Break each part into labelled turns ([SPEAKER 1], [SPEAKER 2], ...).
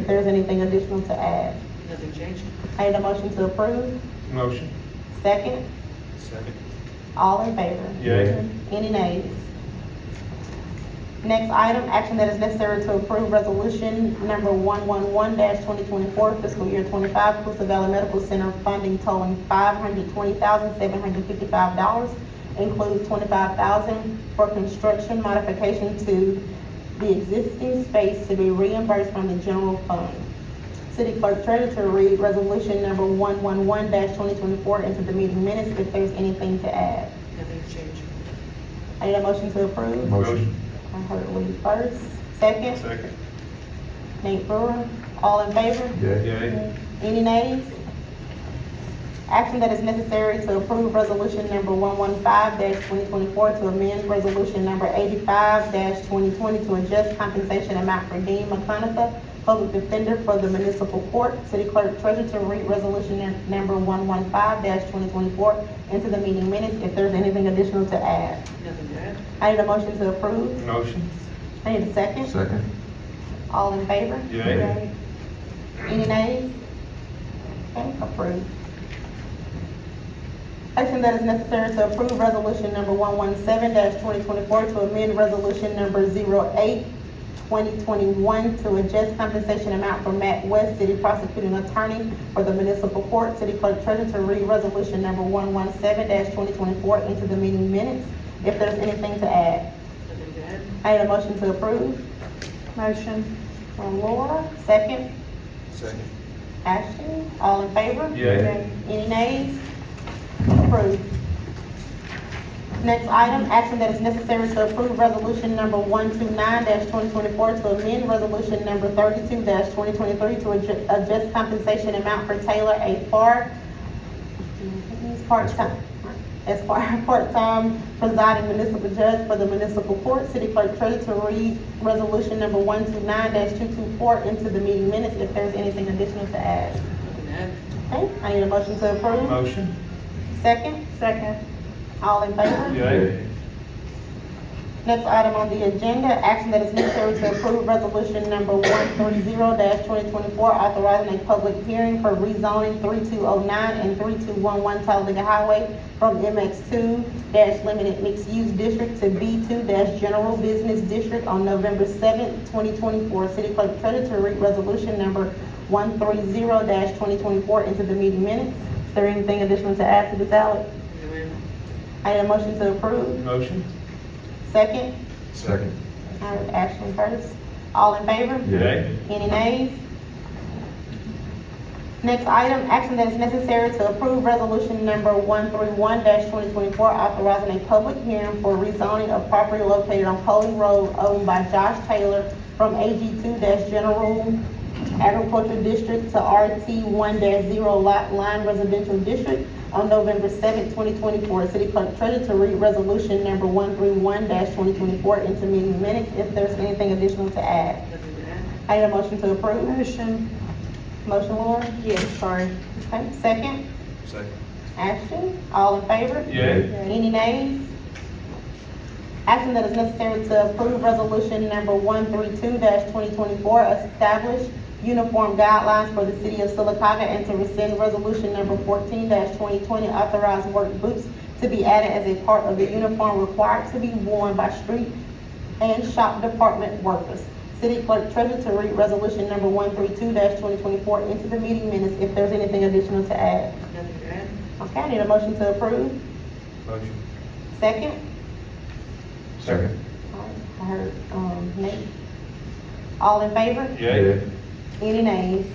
[SPEAKER 1] if there's anything additional to add.
[SPEAKER 2] Nothing changed?
[SPEAKER 1] I need a motion to approve.
[SPEAKER 3] Motion.
[SPEAKER 1] Second,
[SPEAKER 3] Second.
[SPEAKER 1] all in favor?
[SPEAKER 3] Yay.
[SPEAKER 1] Any nays? Next item, action that is necessary to approve resolution number one-one-one twenty twenty-four fiscal year twenty-five Coosa Valley Medical Center funding totaling five hundred twenty thousand, seven hundred fifty-five dollars, includes twenty-five thousand for construction modification to the existing space to be reimbursed from the general fund. City Clerk Treasurer to read resolution number one-one-one twenty twenty-four into the meeting minutes if there's anything to add.
[SPEAKER 2] Nothing changed?
[SPEAKER 1] I need a motion to approve.
[SPEAKER 3] Motion.
[SPEAKER 1] I heard Lee first. Second,
[SPEAKER 3] Second.
[SPEAKER 1] Nate Brewer. All in favor?
[SPEAKER 3] Yay.
[SPEAKER 1] Any nays? Action that is necessary to approve resolution number one-one-five twenty twenty-four to amend resolution number eighty-five twenty twenty to adjust compensation amount for Dean McConaughey, public defender for the municipal court. City clerk treasurer to read resolution num- number one-one-five twenty twenty-four into the meeting minutes if there's anything additional to add.
[SPEAKER 2] Nothing to add?
[SPEAKER 1] I need a motion to approve.
[SPEAKER 3] Motion.
[SPEAKER 1] I need a second.
[SPEAKER 4] Second.
[SPEAKER 1] All in favor?
[SPEAKER 3] Yay.
[SPEAKER 1] Any nays? Okay, approved. Action that is necessary to approve resolution number one one seven twenty twenty-four to amend resolution number 08-2021 to adjust compensation amount for Matt West, city prosecuting attorney for the municipal court, city clerk treasurer to read resolution number one one seven twenty twenty-four into the meeting minutes. If there's anything to add,
[SPEAKER 2] Nothing to add?
[SPEAKER 1] I need a motion to approve. Motion. From Laura, second.
[SPEAKER 3] Second.
[SPEAKER 1] Ashton, all in favor?
[SPEAKER 3] Yay.
[SPEAKER 1] Any nays? Approved. Next item, action that is necessary to approve resolution number one-two-nine twenty twenty-four to amend resolution number thirty-two twenty twenty-three to adju- adjust compensation amount for Taylor A. Park. He's part-time, as far, part-time presiding municipal judge for the municipal court. City clerk treasurer to read resolution number one-two-nine two-two-four into the meeting minutes if there's anything additional to add.
[SPEAKER 2] Nothing to add?
[SPEAKER 1] Okay, I need a motion to approve.
[SPEAKER 3] Motion.
[SPEAKER 1] Second? Second. All in favor?
[SPEAKER 3] Yay.
[SPEAKER 1] Next item on the agenda, action that is necessary to approve resolution number one three zero twenty twenty-four, authorizing a public hearing for rezoning three two oh nine and three two one one Talladega Highway from MX two limited mixed use district to B two general business district on November seventh, twenty twenty-four. City clerk treasurer to read resolution number one three zero twenty twenty-four into the meeting minutes. Is there anything additional to add to this, Alex?
[SPEAKER 2] No, ma'am.
[SPEAKER 1] I need a motion to approve.
[SPEAKER 3] Motion.
[SPEAKER 1] Second?
[SPEAKER 4] Second.
[SPEAKER 1] I heard Ashton first. All in favor?
[SPEAKER 3] Yay.
[SPEAKER 1] Any nays? Next item, action that is necessary to approve resolution number one-three-one twenty twenty-four, authorizing a public hearing for rezoning of property located on Holy Road owned by Josh Taylor from AG two general agricultural district to RT one zero lot line residential district on November seventh, twenty twenty-four. City clerk treasurer to read resolution number one-three-one twenty twenty-four into meeting minutes if there's anything additional to add.
[SPEAKER 2] Nothing to add?
[SPEAKER 1] I need a motion to approve. Motion. Motion, Laura? Yes. Sorry. Okay, second,
[SPEAKER 3] Second.
[SPEAKER 1] Ashton, all in favor?
[SPEAKER 3] Yay.
[SPEAKER 1] Any nays? Action that is necessary to approve resolution number one three two twenty twenty-four, establish uniform guidelines for the city of Silicaca and to rescind resolution number fourteen twenty twenty, authorize work boots to be added as a part of the uniform required to be worn by street and shop department workers. City clerk treasurer to read resolution number one three two twenty twenty-four into the meeting minutes if there's anything additional to add.
[SPEAKER 2] Nothing to add?
[SPEAKER 1] Okay, I need a motion to approve.
[SPEAKER 3] Motion.
[SPEAKER 1] Second?
[SPEAKER 4] Second.
[SPEAKER 1] I heard, um, Nate. All in favor?
[SPEAKER 3] Yay.
[SPEAKER 1] Any nays?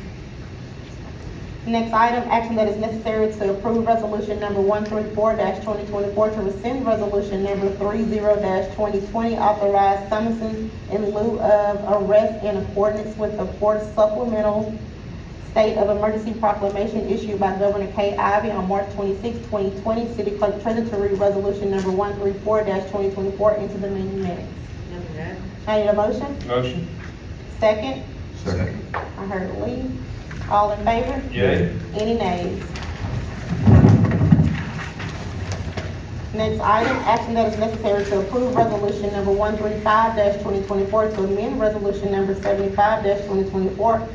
[SPEAKER 1] Next item, action that is necessary to approve resolution number one three four twenty twenty-four to rescind resolution number three zero twenty twenty, authorize summonses in lieu of arrest in accordance with the fourth supplemental state of emergency proclamation issued by Governor Kay Ivey on March 26, twenty twenty. City clerk treasurer to read resolution number one three four twenty twenty-four into the meeting minutes.
[SPEAKER 2] Nothing to add?
[SPEAKER 1] I need a motion?
[SPEAKER 3] Motion.
[SPEAKER 1] Second?
[SPEAKER 4] Second.
[SPEAKER 1] I heard Lee. All in favor?
[SPEAKER 3] Yay.
[SPEAKER 1] Any nays? Next item, action that is necessary to approve resolution number one three five twenty twenty-four to amend resolution number seventy-five twenty twenty-four